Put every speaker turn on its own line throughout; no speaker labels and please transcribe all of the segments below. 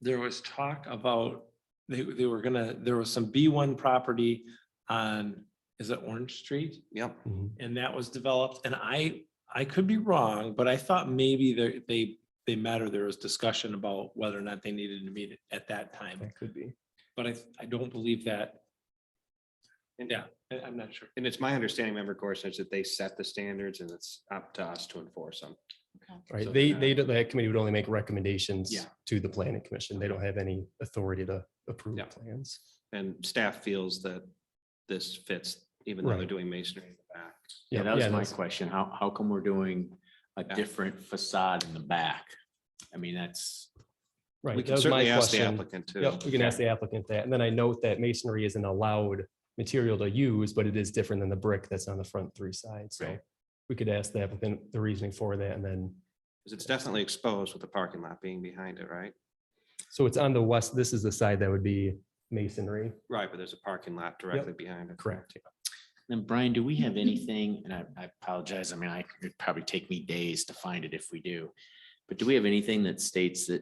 there was talk about, they, they were gonna, there was some B one property on, is it Orange Street?
Yep.
And that was developed, and I, I could be wrong, but I thought maybe they, they, they met or there was discussion about whether or not they needed to meet at that time.
That could be.
But I, I don't believe that,
And-
yeah, I- I'm not sure.
And it's my understanding, member Gorsuch, that they set the standards and it's up to us to enforce them. So
Right. They,
they're
they,
not-
don't- that committee would only make recommendations
Yeah.
to the planning commission. They don't have any authority to approve
Yeah.
plans.
And staff feels that this fits, even though they're
Right.
doing masonry in the back.
Yeah, that was my
that's-
question. How, how come we're doing a
Yeah.
different facade in the back? I mean, that's,
We
Right. That
can
was my
certainly ask the
question.
applicant to.
Yep, we can ask the applicant that. And then I note that masonry isn't allowed material to use, but it is different than the brick that's on the front three sides. So
Right.
we could ask the applicant the reasoning for that and then,
Because it's definitely exposed with the parking lot being behind it, right?
so it's on the west, this is the side that would be masonry.
Right, but there's a parking lot directly behind it.
Correct.
then Brian, do we have anything, and I, I apologize, I mean, I, it'd probably take me days to find it if we do. But do we have anything that states that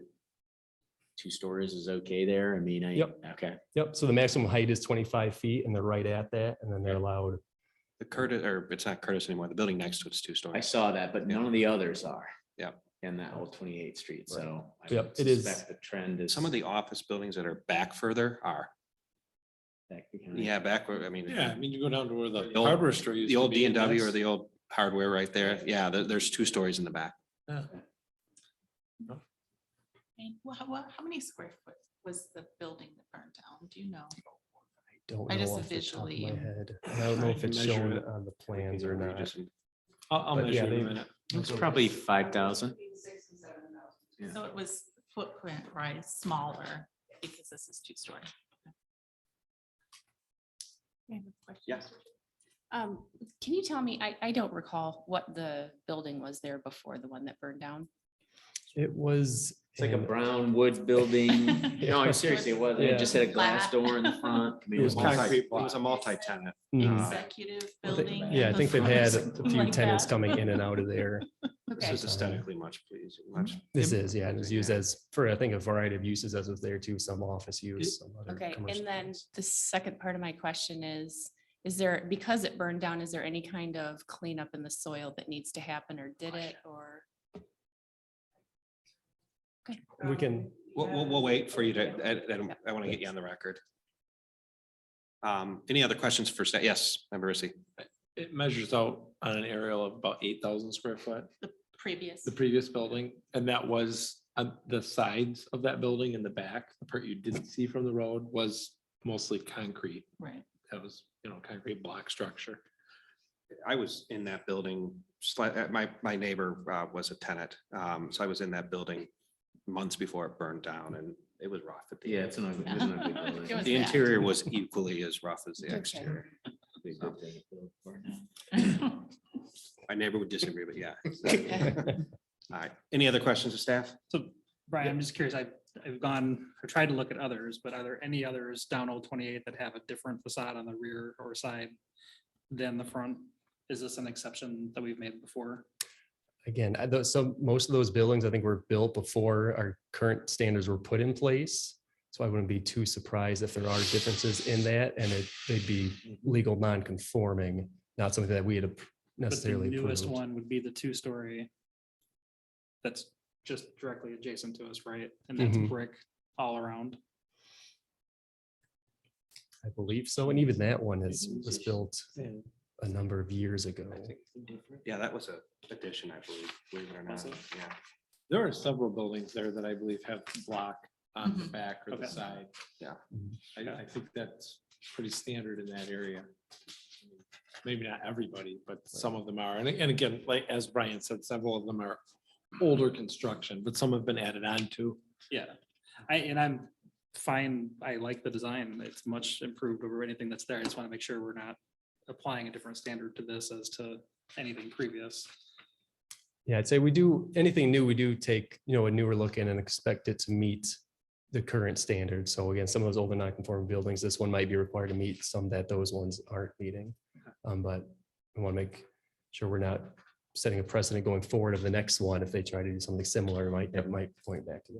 two stories is okay there? I mean, I,
Yep.
okay,
Yep. So the maximum height is twenty-five feet and they're right at that. And then they're allowed.
The Curtis, or it's not Curtis anymore, the building next to it's two
I
stories.
saw that, but none of the others are.
Yep.
In that whole twenty-eighth street, so. I
Yep, it
would
is-
suspect The trend is.
Some of the office buildings that are back further are,
that behind.
yeah, backward, I mean.
Yeah, I mean, you go down to where the
The old-
hardware store used
The
to
old
be,
D and W or
that's-
the old hardware right there. Yeah, there- there's two stories in the back.
And wha- wha- how, many square foot was the building that burned down? Do you know?
Don't
I
know
just
off the top of
visually
my
am-
head. And I don't know
I
if
can
it's
measure
shown
it.
on the plans or
You
not.
just-
I'll, I'll
But
measure
yeah,
it in a
they-
minute.
It's probably five thousand. Yeah.
So it was footprint, right, smaller because this is two story.
Yeah.
Um, can you tell me, I, I don't recall what the building was there before the one that burned down?
It was.
It's like a
an-
brown wood building. No, I'm serious, it was. It just had a glass
Flat.
door in the front. I mean,
It was
multi-
concrete
It was a multi-tenant.
Mhm.
Uh,
Executive
I think-
building.
Yeah, I
and
think they've
front
had
or
a
something
few
like
tenants
that.
coming in and out of there.
This
Okay,
is aesthetically much pleasing, much.
This
Im-
is, yeah, it was used as for, I think, a variety of uses as of there too, some office use. some other
okay.
commercial
And then
use.
the second part of my question is, is there, because it burned down, is there any kind of cleanup in the soil that needs to happen or did it or? Okay.
We can,
We'll, we'll, we'll wait for you to, I- I, don't- I want to get you on the record. Um, any other questions for, sta- yes, member Rissy?
It measures out on an aerial of about eight thousand square foot,
Previous.
the previous building, and that was on the sides of that building in the back, the part you didn't see from the road was mostly concrete.
Right.
That was, you know, concrete block structure.
I was in that building, slight, uh, my, my neighbor uh, was a tenant, um, so I was in that building months before it burned down and it was rough. at the
Yeah, it's an ugly. it was an ugly building.
It was
The
bad.
interior was equally as rough as the
Okay.
exterior.
Big
So
building.
My neighbor would disagree, but yeah. All right, any other questions of staff?
So Brian, I'm just curious, I, I've gone, I've tried to look at others, but are there any others down Old Twenty Eight that have a different facade on the rear or side than the front? Is this an exception that we've made before?
again, I- those- so most of those buildings, I think, were built before our current standards were put in place. So I wouldn't be too surprised if there are differences in that and it, they'd be legal non-conforming, not something that we had ap-
But the
necessarily.
newest
approved.
one would be the two-story that's just directly adjacent to us, right? And that's
Mhm.
brick all around.
I believe so. And even that one is,
Mhm.
was built a number of years ago.
Yeah, that was a addition, I believe, believe it or not,
Was it?
yeah.
There are several buildings there that I believe have block on the
Mhm.
back or the
Okay.
side.
Yeah.
Mhm.
I, I think that's pretty standard in that area. Maybe not everybody, but some of them are. And, and again, like, as Brian said, several of them are older construction, but some have been added on to.
Yeah, I, and I'm fine, I like the design, it's much improved over anything that's there, I just want to make sure we're not applying a different standard to this as to anything previous.
Yeah, I'd say we do, anything new, we do take, you know, a newer look in and expect it to meet the current standard. So again, some of those older non-conforming buildings, this one might be required to meet some that those ones aren't meeting. Um, but we want to make sure we're not setting a precedent going forward of the next one. If they try to do something similar, it might, it might point back to